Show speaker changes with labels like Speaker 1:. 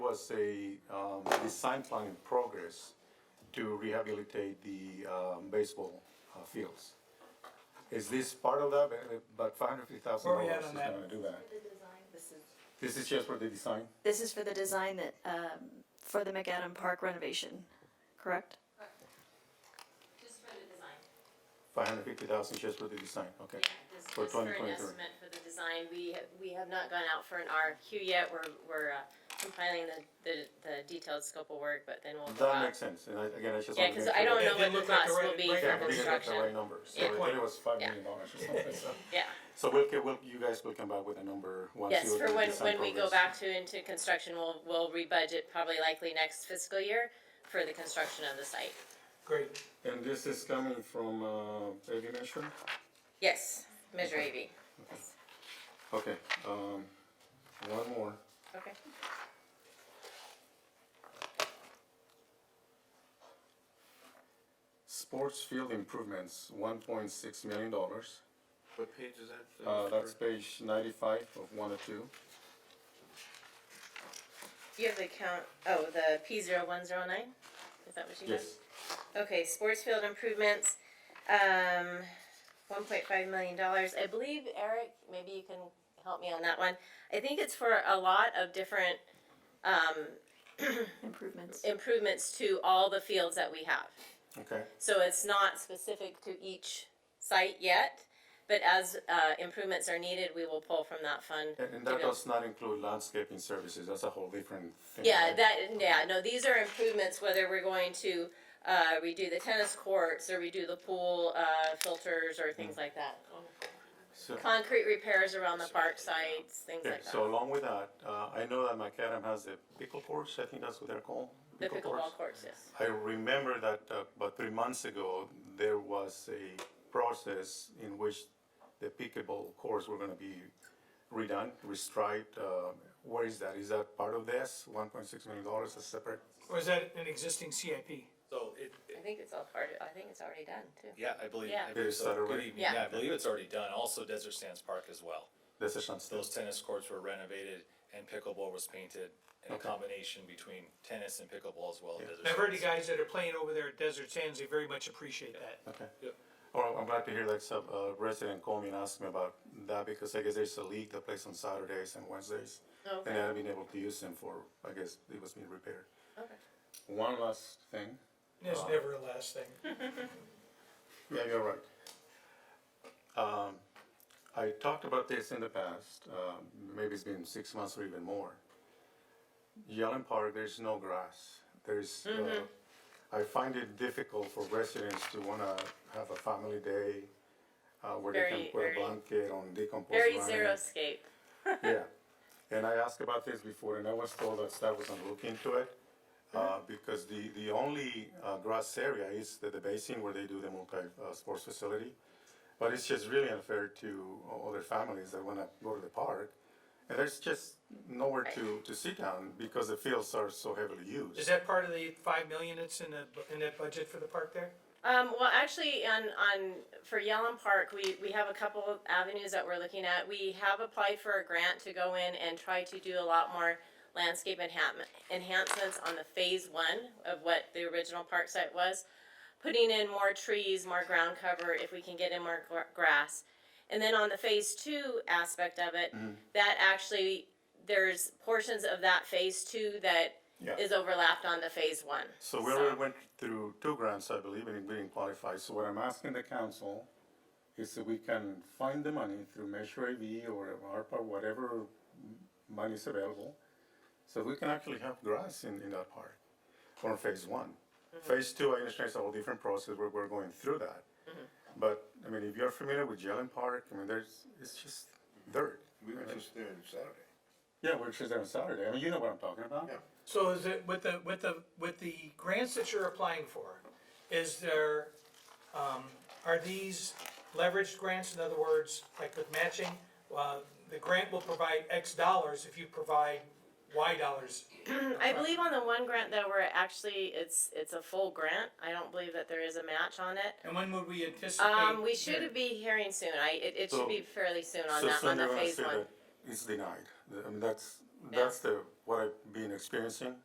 Speaker 1: was a um, design plan in progress to rehabilitate the um, baseball uh, fields. Is this part of that? Uh, But five hundred fifty thousand
Speaker 2: Where are
Speaker 1: dollars
Speaker 2: we at
Speaker 1: is
Speaker 2: on that?
Speaker 1: gonna do that.
Speaker 3: This is,
Speaker 1: This is just for the design?
Speaker 4: This is for the design that, um, for the McAdam Park renovation, correct?
Speaker 3: just for the design.
Speaker 1: Five hundred fifty thousand just for the design, okay.
Speaker 3: Yeah, this
Speaker 1: For
Speaker 3: is for an
Speaker 1: 2023.
Speaker 3: estimate for the design. We, ha- we have not gone out for an RFQ yet. We're, we're uh, compiling the, the, the detailed scope of work, but then we'll go
Speaker 1: That
Speaker 3: out.
Speaker 1: makes sense, and I, again, I just.
Speaker 3: Yeah,
Speaker 1: wanna
Speaker 3: cause
Speaker 1: make
Speaker 3: I
Speaker 1: sure
Speaker 3: don't
Speaker 1: that-
Speaker 2: It
Speaker 3: know what
Speaker 2: didn't
Speaker 3: the
Speaker 2: look like
Speaker 3: cost
Speaker 2: the
Speaker 3: will
Speaker 2: right-
Speaker 3: be
Speaker 2: right
Speaker 3: for
Speaker 1: Yeah, we didn't get the right
Speaker 3: construction.
Speaker 1: number, so
Speaker 3: Yeah.
Speaker 1: I think it was five
Speaker 3: Yeah.
Speaker 1: million dollars or something, so.
Speaker 3: Yeah,
Speaker 1: So we'll, get- we'll, you guys will come back with a number once
Speaker 3: yes,
Speaker 1: you.
Speaker 3: for
Speaker 1: do
Speaker 3: when,
Speaker 1: design
Speaker 3: when we go
Speaker 1: progress.
Speaker 3: back to into construction, we'll, we'll rebudget probably likely next fiscal year for the construction of the site.
Speaker 2: Great.
Speaker 1: And this is coming from, uh, Eddie Measure?
Speaker 3: Yes, Measure AV.
Speaker 1: Okay, um, one more.
Speaker 3: Okay.
Speaker 1: Sports field improvements, one point six million dollars.
Speaker 5: What page is that?
Speaker 1: Uh, that's page ninety-five of one or two.
Speaker 3: You have the count, oh, the P zero one zero nine? Is that what you have?
Speaker 1: Yes,
Speaker 3: Okay, sports field improvements, um, one point five million dollars. I believe Eric, maybe you can help me on that one. I think it's for a lot of different, um,
Speaker 4: Improvements.
Speaker 3: improvements to all the fields that we have.
Speaker 1: okay.
Speaker 3: So it's not specific to each site yet, but as, uh, improvements are needed, we will pull from that fund.
Speaker 1: And, and
Speaker 3: to
Speaker 1: that
Speaker 3: go-
Speaker 1: does not include landscaping services, that's a whole different thing.
Speaker 3: Yeah,
Speaker 1: right?
Speaker 3: that, yeah, no, these are improvements, whether we're going to, uh, redo the tennis courts or redo the pool, uh, filters or things like that.
Speaker 1: So-
Speaker 3: Concrete repairs around the park sites, things
Speaker 1: Okay,
Speaker 3: like
Speaker 1: so
Speaker 3: that.
Speaker 1: along with that, uh, I know that McAdam has the pickle course, I think that's what they're called.
Speaker 3: The
Speaker 1: pickle course.
Speaker 3: pickleball courts, yes.
Speaker 1: I remember that uh, about three months ago, there was a process in which the pickleball courts were gonna be redone, restriped. Uh, where is that? Is that part of this? One point six million dollars, a separate?
Speaker 2: Or is that an existing CIP?
Speaker 6: So it, it-
Speaker 3: I think it's all part of, I think it's already done too.
Speaker 6: yeah, I believe.
Speaker 3: Yeah.
Speaker 6: I believe
Speaker 1: Is that
Speaker 6: so. Good
Speaker 1: already-
Speaker 6: evening.
Speaker 3: Yeah.
Speaker 6: Yeah, I believe it's already done. Also Desert Sands Park as well.
Speaker 1: This is not still.
Speaker 6: Those tennis courts were renovated and pickleball was painted and a combination between tennis and pickleball as well. at Desert
Speaker 2: I've heard the guys
Speaker 6: Sands.
Speaker 2: that are playing over there at Desert Sands, they very much appreciate that.
Speaker 1: Okay.
Speaker 6: Yep.
Speaker 1: Or I'm glad to hear that some uh, resident called me and asked me about that because I guess there's a league that plays on Saturdays and Wednesdays. And I
Speaker 3: Okay,
Speaker 1: haven't been able to use them for, I guess it was being repaired.
Speaker 3: okay.
Speaker 1: One last thing.
Speaker 2: There's never a last thing.
Speaker 1: Yeah, you're right. Um, I talked about this in the past, um, maybe it's been six months or even more. Yellen Park, there's no grass. There's,
Speaker 3: Mm-hmm.
Speaker 1: uh, I find it difficult for residents to wanna have a family day, uh, where they can
Speaker 3: Very,
Speaker 1: put a
Speaker 3: very-
Speaker 1: blanket on decomposed
Speaker 3: Very
Speaker 1: land.
Speaker 3: zero scape.
Speaker 1: Yeah, and I asked about this before, and I was told that staff was gonna look into it, uh, because the, the only, uh, grass area is the, the basin where they do the multi, uh, sports facility. But it's just really unfair to o- other families that wanna go to the park, and there's just nowhere to, to sit down because the fields are so heavily used.
Speaker 2: Is that part of the five million that's in the, in that budget for the park there?
Speaker 3: Um, well, actually, on, on, for Yellen Park, we, we have a couple of avenues that we're looking at. We have applied for a grant to go in and try to do a lot more landscape enhancement, enhancements on the phase one of what the original park site was. Putting in more trees, more ground cover, if we can get in more gr- grass. And then on the phase two aspect of it,
Speaker 1: Mm-hmm.
Speaker 3: that actually, there's portions of that phase two that
Speaker 1: Yeah.
Speaker 3: is overlapped on the phase one.
Speaker 1: So we already went through two grants, I believe, and we didn't qualify. So what I'm asking the council is that we can find the money through Measure AV or ARPA, whatever m- money is available. So we can actually have grass in, in that park, or phase one. Phase two, I understand it's a whole different process, we're, we're going through that. But, I mean, if you're familiar with Jelen Park, I mean, there's, it's just dirt.
Speaker 5: We were just there on Saturday.
Speaker 1: Yeah, we're just there on Saturday. I mean, you know what I'm talking about?
Speaker 5: Yeah.
Speaker 2: So is it, with the, with the, with the grants that you're applying for, is there, um, are these leveraged grants, in other words, like with matching? Uh, the grant will provide X dollars if you provide Y dollars.
Speaker 3: I believe on the one grant that we're actually, it's, it's a full grant. I don't believe that there is a match on it.
Speaker 2: And when would we anticipate?
Speaker 3: Um, we should be hearing soon. I, it, it should be
Speaker 1: So-
Speaker 3: fairly soon on
Speaker 1: So uh,
Speaker 3: that, on
Speaker 1: soon
Speaker 3: the
Speaker 1: they're gonna
Speaker 3: phase
Speaker 1: say
Speaker 3: one.
Speaker 1: that It's denied. I mean, that's, that's the, what I've been experiencing